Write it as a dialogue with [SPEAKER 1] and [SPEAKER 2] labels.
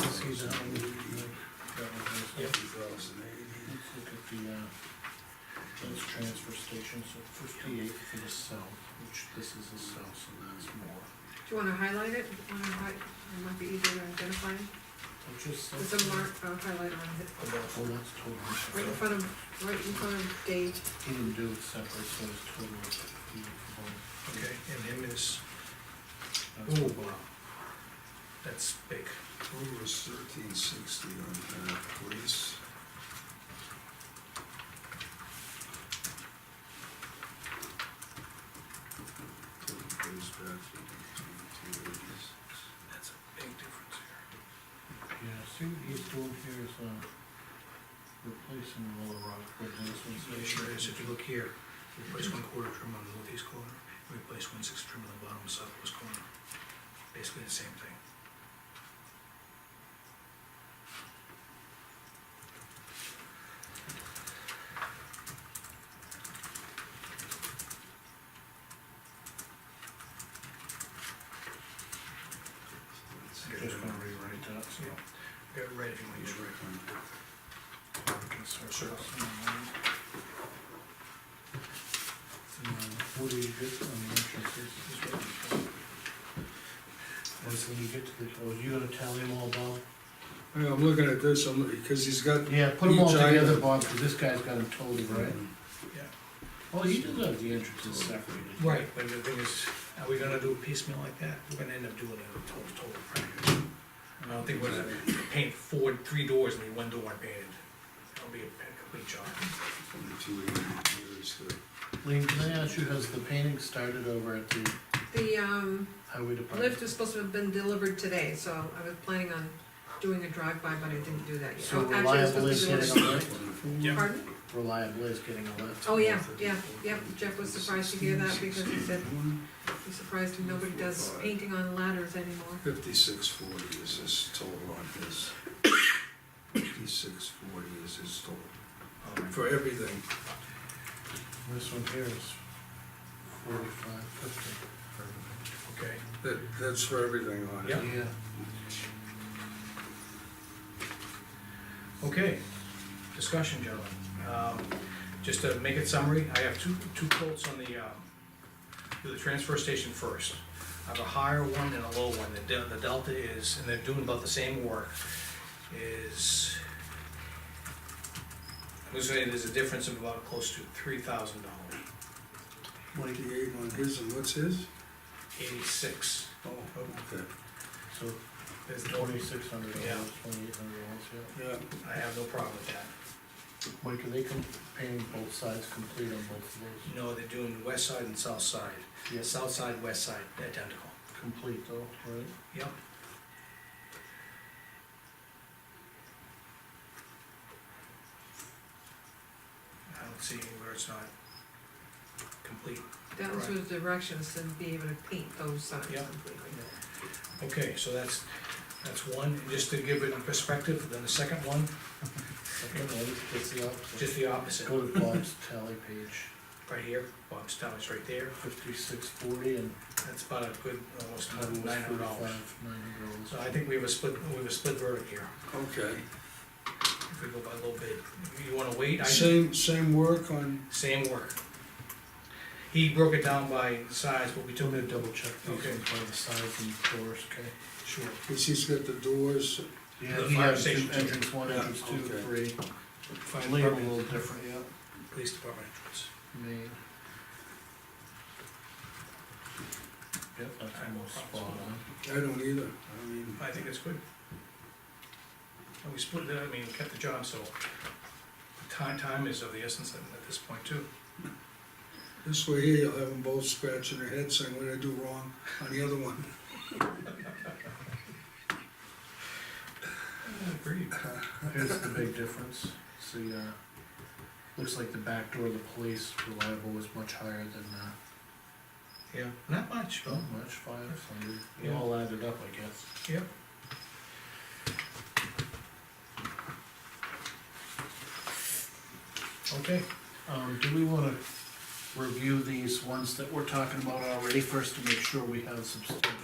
[SPEAKER 1] excuse me. Yep.
[SPEAKER 2] Let's look at the, uh, those transfer stations, so fifty-eight for the south, which this is the south, so that's more.
[SPEAKER 3] Do you wanna highlight it? Wanna hi- It might be easier to identify.
[SPEAKER 2] Which is.
[SPEAKER 3] There's a mark, a highlight on it,
[SPEAKER 2] About, well, that's totally
[SPEAKER 3] right in
[SPEAKER 2] separate.
[SPEAKER 3] front of, right in front of date.
[SPEAKER 2] He didn't do it separate, so it's totally fifty-eight for both.
[SPEAKER 1] Okay, and him is,
[SPEAKER 2] That's
[SPEAKER 1] Ooh.
[SPEAKER 2] about-
[SPEAKER 1] that's big.
[SPEAKER 4] Total was thirteen sixty on the police. Total goes back to 1886.
[SPEAKER 1] That's a big difference here.
[SPEAKER 2] Yeah, see what he's doing here is, uh, replacing Little Rock with this one. so-
[SPEAKER 1] Yeah, sure is, if you look here, replace one quarter trim on the northeast corner, replace one sixth trim on the bottom southwest corner. Basically the same thing.
[SPEAKER 4] That's-
[SPEAKER 1] Okay.
[SPEAKER 2] Just gonna rewrite that, so.
[SPEAKER 1] Get it right if you want to use right.
[SPEAKER 2] we can circle
[SPEAKER 1] Circle.
[SPEAKER 2] some of them. And, uh, What do you get on the entrances? Once when you get to the, oh, you gonna tally them all, Bob?
[SPEAKER 4] Hey, I'm looking at this, I'm, because he's got.
[SPEAKER 2] Yeah, put them all
[SPEAKER 4] Each item.
[SPEAKER 2] together, Bob, because this guy's got them totally right.
[SPEAKER 1] Yeah.
[SPEAKER 2] Well, you do have the entrances separated.
[SPEAKER 1] Right, but the thing is, are we gonna do a piecemeal like that? We're gonna end up doing a total, total frame. I don't think we're gonna paint four, three doors and leave one door unpainted. That'll be a complete job.
[SPEAKER 4] Twenty-two eighty years, the
[SPEAKER 2] Lean, can I ask you, has the painting started over at the
[SPEAKER 3] The, um,
[SPEAKER 2] highway department?
[SPEAKER 3] lift is supposed to have been delivered today, so I was planning on doing a drive-by, but I didn't do that yet.
[SPEAKER 2] So
[SPEAKER 3] Oh, actually, I was
[SPEAKER 2] reliable is
[SPEAKER 3] supposed to do
[SPEAKER 2] getting a
[SPEAKER 3] it-
[SPEAKER 2] lift,
[SPEAKER 1] Yeah.
[SPEAKER 3] Pardon?
[SPEAKER 2] reliable is getting a lift.
[SPEAKER 3] Oh, yeah, yeah, yeah, Jeff was surprised to hear that because he said, he's surprised nobody does painting on ladders anymore.
[SPEAKER 4] Fifty-six forty is his total on his. Fifty-six forty is his total. For everything.
[SPEAKER 2] This one here is forty-five fifty.
[SPEAKER 1] Okay,
[SPEAKER 4] That, that's for everything on it.
[SPEAKER 1] Yeah.
[SPEAKER 2] Yeah.
[SPEAKER 1] okay. Discussion, gentlemen. Um, just to make it summary, I have two, two quotes on the, um, do the transfer station first. I have a higher one and a low one. The del- The delta is, and they're doing about the same work, is, I'm gonna say there's a difference of about close to three thousand dollars.
[SPEAKER 4] Twenty-eight on his, and what's his?
[SPEAKER 1] Eighty-six,
[SPEAKER 4] Oh, okay.
[SPEAKER 2] So
[SPEAKER 1] there's no,
[SPEAKER 2] twenty-six hundred
[SPEAKER 1] Yeah.
[SPEAKER 2] dollars, twenty-eight hundred dollars, yeah.
[SPEAKER 4] Yeah.
[SPEAKER 1] I have no problem with that.
[SPEAKER 2] Mike, are they com- painting both sides complete on both of those?
[SPEAKER 1] No, they're doing the west side and south side. The
[SPEAKER 2] Yes,
[SPEAKER 1] south side, west side, identical.
[SPEAKER 2] complete though, right?
[SPEAKER 1] Yep. I don't see anywhere it's not complete.
[SPEAKER 3] That was his directions, to be able to paint those signs
[SPEAKER 1] Yeah.
[SPEAKER 3] completely.
[SPEAKER 1] Okay, so that's, that's one, And just to give it in perspective, then the second one,
[SPEAKER 2] Second, one, it's the opposite.
[SPEAKER 1] just the opposite,
[SPEAKER 2] Go to Bob's tally page,
[SPEAKER 1] right here, Bob's Tower's right there,
[SPEAKER 2] fifty-six forty and
[SPEAKER 1] that's about a good, almost
[SPEAKER 2] total was
[SPEAKER 1] nine hundred dollars.
[SPEAKER 2] forty-five, nine hundred
[SPEAKER 1] So
[SPEAKER 2] dollars.
[SPEAKER 1] I think we have a split, we have a split verdict here,
[SPEAKER 4] Okay.
[SPEAKER 1] if we go by a little bit. You wanna wait? I-
[SPEAKER 4] Same, same work on,
[SPEAKER 1] Same work. He broke it down by size, but we
[SPEAKER 2] I'm
[SPEAKER 1] took
[SPEAKER 2] gonna
[SPEAKER 1] it,
[SPEAKER 2] double check these
[SPEAKER 1] Okay.
[SPEAKER 2] ones by the sides and doors, okay?
[SPEAKER 1] sure,
[SPEAKER 4] because he's got the doors,
[SPEAKER 2] Yeah,
[SPEAKER 1] The
[SPEAKER 2] he
[SPEAKER 1] fire
[SPEAKER 2] has two
[SPEAKER 1] station.
[SPEAKER 2] entrance, one
[SPEAKER 4] Yeah,
[SPEAKER 2] entrance, two,
[SPEAKER 4] okay.
[SPEAKER 2] three.
[SPEAKER 1] fire
[SPEAKER 2] Label a
[SPEAKER 1] department,
[SPEAKER 2] little different, yeah.
[SPEAKER 1] police department entrance.
[SPEAKER 2] Main. Yep, that's
[SPEAKER 1] I have no
[SPEAKER 2] almost spot
[SPEAKER 1] problems with
[SPEAKER 2] on.
[SPEAKER 4] I don't either, I mean,
[SPEAKER 1] I think that's good. And we split it, I mean, kept the job, so the time, time is of the essence at at this point too.
[SPEAKER 4] this way here, you'll have them both scratching their heads saying, what did I do wrong on the other one?
[SPEAKER 1] Agreed.
[SPEAKER 2] Here's the big difference, see, uh, looks like the back door of the police reliable was much higher than, uh,
[SPEAKER 1] Yeah, not much,
[SPEAKER 2] not much, five hundred, it
[SPEAKER 1] Yeah.
[SPEAKER 2] all added up, I guess.
[SPEAKER 1] Yep. Okay,
[SPEAKER 2] Um, do we wanna review these ones that we're talking about already first to make sure we have substantial